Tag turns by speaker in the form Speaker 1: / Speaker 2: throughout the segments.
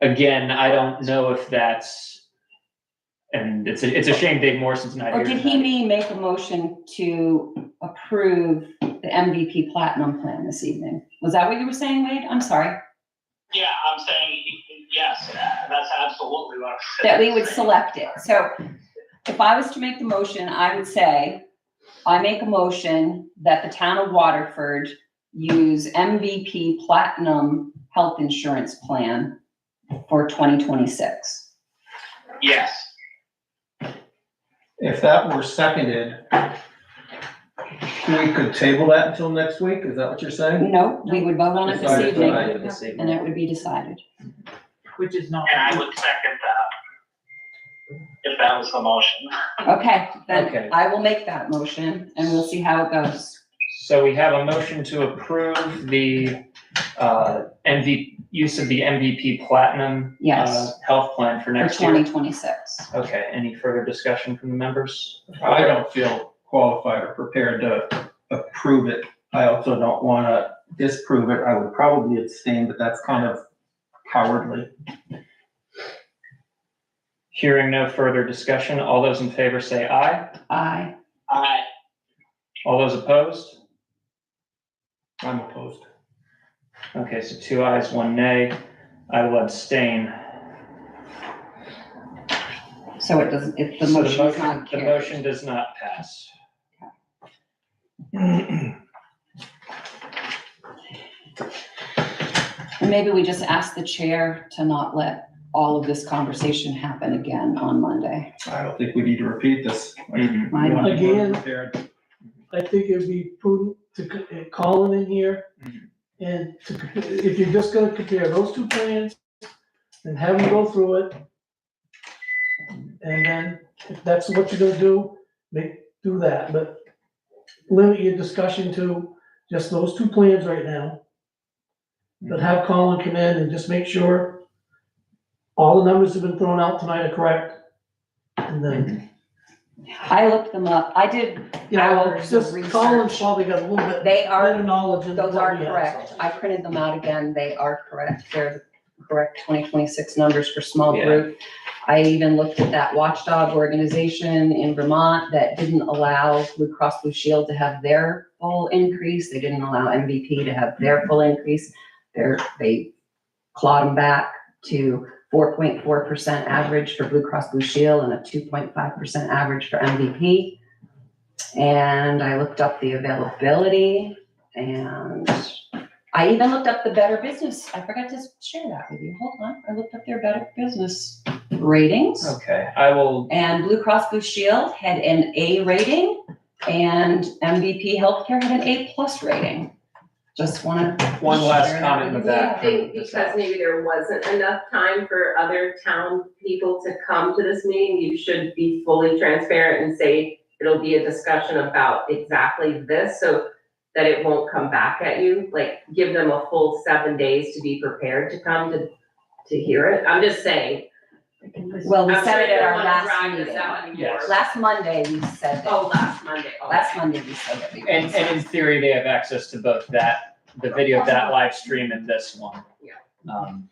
Speaker 1: Again, I don't know if that's, and it's a, it's a shame Dave Morrison's not here.
Speaker 2: Or did he
Speaker 1: tonight.
Speaker 2: mean make a motion to approve the MVP Platinum Plan this evening? Was that what you were saying, Wade? I'm sorry.
Speaker 3: Yeah, I'm saying, yes, that's absolutely what I'm saying.
Speaker 2: That we would select it. So if I was to make the motion, I would say, I make a motion that the town of Waterford use MVP Platinum Health Insurance Plan for 2026.
Speaker 3: Yes,
Speaker 4: If that were seconded, we could table that until next week, is that what you're saying?
Speaker 2: No, we would vote on it this
Speaker 4: Decided
Speaker 2: evening
Speaker 4: tonight.
Speaker 2: and it would be decided.
Speaker 5: Which is not.
Speaker 3: and I would second that. If that was the motion.
Speaker 2: Okay,
Speaker 4: Okay.
Speaker 2: then I will make that motion and we'll see how it goes.
Speaker 1: So we have a motion to approve the, uh, MV, use of the MVP Platinum.
Speaker 2: Yes.
Speaker 1: uh, Health plan for
Speaker 2: for
Speaker 1: next year.
Speaker 2: twenty twenty-six.
Speaker 1: Okay, any further discussion from the members?
Speaker 4: I don't feel qualified or prepared to approve it. I also don't wanna disprove it, I would probably abstain, but that's kind of cowardly.
Speaker 1: Hearing no further discussion, all those in favor say aye.
Speaker 2: I,
Speaker 3: I,
Speaker 1: All those opposed?
Speaker 4: I'm opposed.
Speaker 1: Okay, so two ayes, one nay. I will abstain.
Speaker 2: so it doesn't, if the
Speaker 1: So
Speaker 2: motion is not
Speaker 1: The
Speaker 2: carried.
Speaker 1: motion does not pass.
Speaker 2: And maybe we just ask the chair to not let all of this conversation happen again on Monday.
Speaker 4: I don't think we need to repeat this.
Speaker 1: Mhm.
Speaker 2: I don't-
Speaker 4: We're
Speaker 6: Again.
Speaker 4: prepared.
Speaker 6: I think it'd be prudent to c- uh, call them in here.
Speaker 1: Mhm.
Speaker 6: And to, c- if you're just gonna compare those two plans and have them go through it. And then if that's what you're gonna do, make, do that, but limit your discussion to just those two plans right now. But have Colin come in and just make sure all the numbers that have been thrown out tonight are correct. And then,
Speaker 2: Mhm. I looked them up. I did,
Speaker 6: you know,
Speaker 2: Hours of
Speaker 6: just Colin's
Speaker 2: research.
Speaker 6: probably got a little bit
Speaker 2: they
Speaker 6: better
Speaker 2: are,
Speaker 6: knowledge than
Speaker 2: those
Speaker 6: what
Speaker 2: are
Speaker 6: we have,
Speaker 2: correct.
Speaker 6: so.
Speaker 2: I printed them out again. They are correct. They're the correct twenty twenty-six numbers for small
Speaker 1: Yeah.
Speaker 2: group. I even looked at that watchdog organization in Vermont that didn't allow Blue Cross Blue Shield to have their full increase. They didn't allow MVP to have their full increase. They're, they clawed them back to four point four percent average for Blue Cross Blue Shield and a two point five percent average for MVP. And I looked up the availability and I even looked up the Better Business. I forgot to share that with you. Hold on. I looked up their Better Business ratings.
Speaker 1: Okay, I will,
Speaker 2: And Blue Cross Blue Shield had an A rating and MVP Healthcare had an A plus rating. Just wanna.
Speaker 1: one last
Speaker 2: share that
Speaker 1: comment with
Speaker 2: you.
Speaker 1: that.
Speaker 7: think because maybe there wasn't enough time for other town people to come to this meeting, you should be fully transparent and say it'll be a discussion about exactly this, so that it won't come back at you, like, give them a full seven days to be prepared to come to, to hear it. I'm just saying.
Speaker 2: Well, we
Speaker 7: I'm
Speaker 2: said
Speaker 7: sure
Speaker 2: it
Speaker 7: you
Speaker 2: at
Speaker 7: don't
Speaker 2: our
Speaker 7: wanna
Speaker 2: last
Speaker 7: drag this
Speaker 2: meeting.
Speaker 7: out anymore.
Speaker 1: Yes.
Speaker 2: Last Monday, we said
Speaker 7: Oh,
Speaker 2: that.
Speaker 7: last Monday. Oh,
Speaker 2: Last Monday, we said that. we were
Speaker 1: And, and in theory, they have access to both that, the video of that live stream and this one.
Speaker 7: Yeah.
Speaker 1: Um,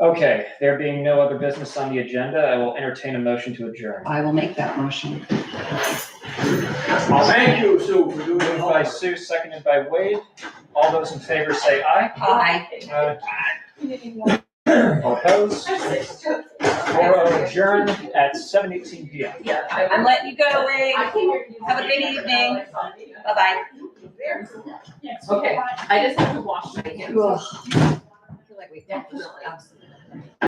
Speaker 1: Okay, there being no other business on the agenda, I will entertain a motion to adjourn.
Speaker 2: I will make that motion.
Speaker 1: Thank you, Sue, for doing
Speaker 6: Oh,
Speaker 1: Moved by Sue, seconded by Wade. All those in favor say aye.
Speaker 2: Aye.
Speaker 1: All opposed? We're adjourned at seven eighteen P M.
Speaker 2: I'm letting you go, Wade.
Speaker 7: Have
Speaker 2: Have a good evening. Bye-bye.
Speaker 7: Okay, I just have to wash my hands.
Speaker 2: I feel like we-
Speaker 7: Definitely.
Speaker 2: Absolutely.